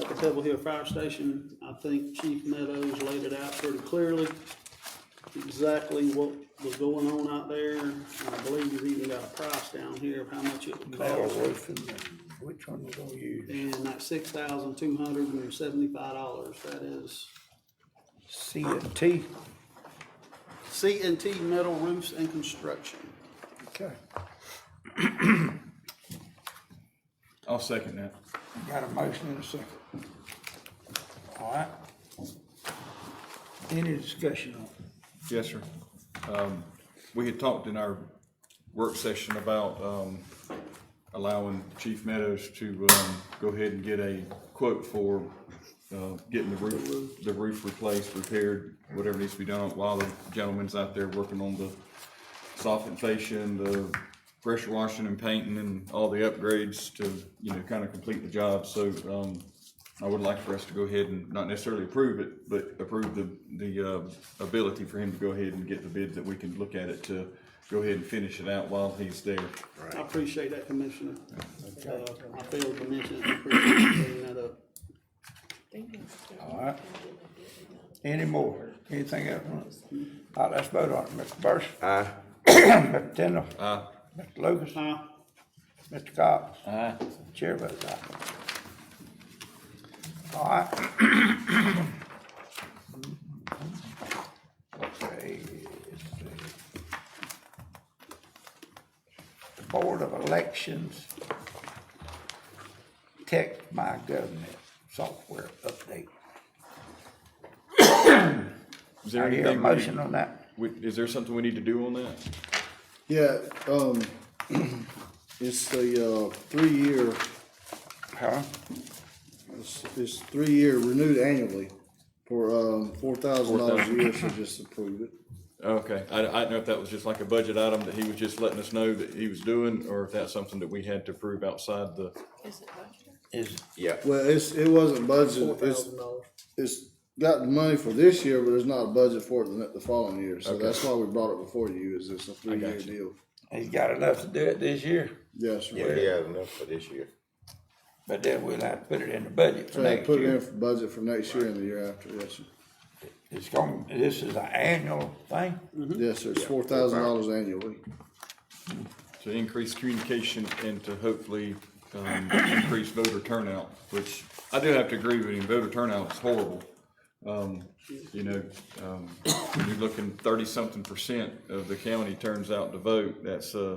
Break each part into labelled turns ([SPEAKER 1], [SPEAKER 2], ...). [SPEAKER 1] at the Pebble Hill Fire Station. I think Chief Meadows laid it out pretty clearly, exactly what was going on out there. And I believe he's even got a price down here of how much it would
[SPEAKER 2] metal
[SPEAKER 1] cost.
[SPEAKER 2] roofing, which one we gonna use?
[SPEAKER 1] And that six thousand two hundred and seventy-five dollars, that is
[SPEAKER 2] C and T,
[SPEAKER 1] C and T metal roofs and construction.
[SPEAKER 2] okay.
[SPEAKER 3] I'll second that.
[SPEAKER 2] Got a motion and a second. All right. Any discussion on it?
[SPEAKER 3] Yes, sir. Um, we had talked in our work session about, um, allowing Chief Meadows to, um, go ahead and get a quote for, uh, getting the roof, the roof replaced, repaired, whatever needs to be done while the gentleman's out there working on the soffit fascia, the pressure washing and painting and all the upgrades to, you know, kind of complete the job. So, um, I would like for us to go ahead and not necessarily approve it, but approve the, the, uh, ability for him to go ahead and get the bid that we can look at it to go ahead and finish it out while he's there.
[SPEAKER 1] I appreciate that, Commissioner. Uh, I failed to mention, it. I appreciate you bringing that up.
[SPEAKER 2] All right. Any more? Anything else? on it? All right, let's vote on it. Mr. Burson? Aye. Mr. Tindall? Aye. Mr. Lucas?
[SPEAKER 1] Aye.
[SPEAKER 2] Mr. Cox? Aye. Chair votes aye. All right. Let's see. The Board of Elections Tech My Government Software Update.
[SPEAKER 3] Is there
[SPEAKER 2] I hear a
[SPEAKER 3] anything we-
[SPEAKER 2] motion on that.
[SPEAKER 3] we- Is there something we need to do on that?
[SPEAKER 4] Yeah, um, it's the, uh, three-year,
[SPEAKER 2] Huh?
[SPEAKER 4] it's, it's three-year renewed annually for, um, four thousand dollars a year, so just approve it.
[SPEAKER 3] Okay, I, I didn't know if that was just like a budget item that he was just letting us know that he was doing, or if that's something that we had to prove outside the,
[SPEAKER 5] Is it budgeted?
[SPEAKER 2] Is,
[SPEAKER 3] yeah.
[SPEAKER 4] Well, it's, it wasn't budgeted, it's,
[SPEAKER 1] $4,000.
[SPEAKER 4] it's got the money for this year, but there's not a budget for it the, ne- the following year, so
[SPEAKER 3] Okay.
[SPEAKER 4] that's why we brought it before you, is it's a three-year
[SPEAKER 3] you.
[SPEAKER 4] deal.
[SPEAKER 2] he's got enough to do it this year,
[SPEAKER 4] Yes, sir.
[SPEAKER 6] Well, he has enough for this year.
[SPEAKER 2] but then we'll have to put it in the budget for
[SPEAKER 4] Trying to
[SPEAKER 2] next
[SPEAKER 4] put it
[SPEAKER 2] year.
[SPEAKER 4] in for budget for next year and the year after, yes, sir.
[SPEAKER 2] It's going, this is an annual thing?
[SPEAKER 4] Yes, sir, it's Mm-hmm. four thousand dollars annually.
[SPEAKER 3] To increase communication and to hopefully, um, increase voter turnout, which I do have to agree with him, voter turnout is horrible. Um, you know, um, when you're looking thirty-something percent of the county turns out to vote, that's, uh,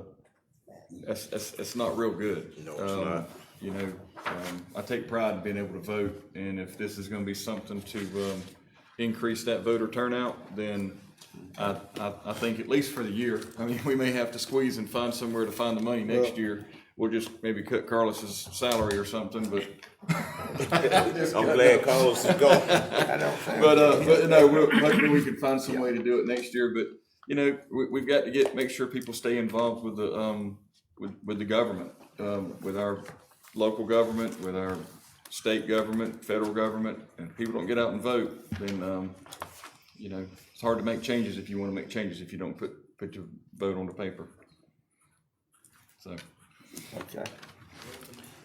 [SPEAKER 3] that's, that's, that's not real good.
[SPEAKER 6] No, it's
[SPEAKER 3] Um,
[SPEAKER 6] not.
[SPEAKER 3] You know, um, I take pride in being able to vote, and if this is gonna be something to, um, increase that voter turnout, then I, I, I think at least for the year, I mean, we may have to squeeze and find somewhere to find the money next year. We'll just maybe cut Carlos's salary or something, but,
[SPEAKER 6] I'm glad Carlos is gone.
[SPEAKER 2] I don't think.
[SPEAKER 3] but, uh, but no, we'll, hopefully we can find some way to do it next year, but, you know, we, we've got to get, make sure people stay involved with the, um, with, with the government, um, with our local government, with our state government, federal government, and if people don't get out and vote, then, um, you know, it's hard to make changes if you wanna make changes if you don't put, put your vote on the paper. So,
[SPEAKER 2] Okay.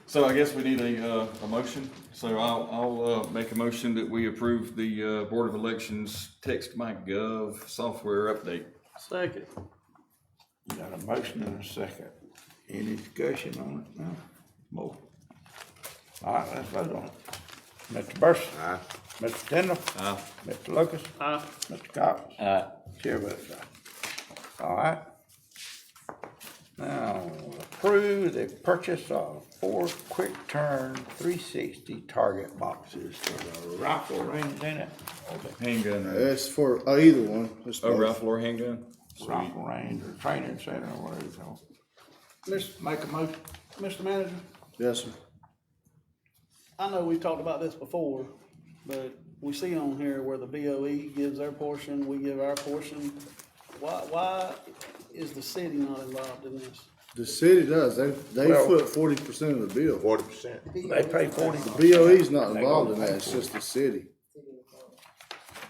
[SPEAKER 3] so I guess we need a, uh, a motion, so I'll, I'll, uh, make a motion that we approve the, uh, Board of Elections Text My Gov software update.
[SPEAKER 1] Second.
[SPEAKER 2] You Got a motion and a second. Any discussion on it now? More? All right, let's vote on it. Mr. Burson?
[SPEAKER 6] Aye.
[SPEAKER 2] Mr. Tindall?
[SPEAKER 3] Aye.
[SPEAKER 2] Mr. Lucas?
[SPEAKER 1] Aye.
[SPEAKER 2] Mr. Cox? Aye. Chair votes aye. All right. Now, approve the purchase of four quick turn three sixty target boxes for the rifle range in it.
[SPEAKER 3] Handgun, or-
[SPEAKER 4] It's for, uh, either one, it's
[SPEAKER 3] oh,
[SPEAKER 4] both.
[SPEAKER 3] rifle or handgun?
[SPEAKER 2] Rifle range or training center or whatever it's called. Let's make a motion, Mr. Manager.
[SPEAKER 4] Yes, sir.
[SPEAKER 1] I know we've talked about this before, but we see on here where the BOE gives their portion, we give our portion. Why, why is the city not involved in this?
[SPEAKER 4] The city does, they, they
[SPEAKER 2] Well-
[SPEAKER 4] foot forty percent of the bill.
[SPEAKER 6] Forty percent.
[SPEAKER 2] They pay forty.
[SPEAKER 4] BOE's not involved in that, it's just the city.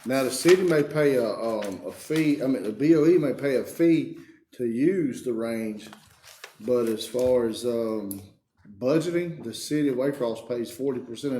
[SPEAKER 4] Now, the city may pay a, um, a fee, I mean, the BOE may pay a fee to use the range, but as far as, um, budgeting, the city of Waycross pays forty percent of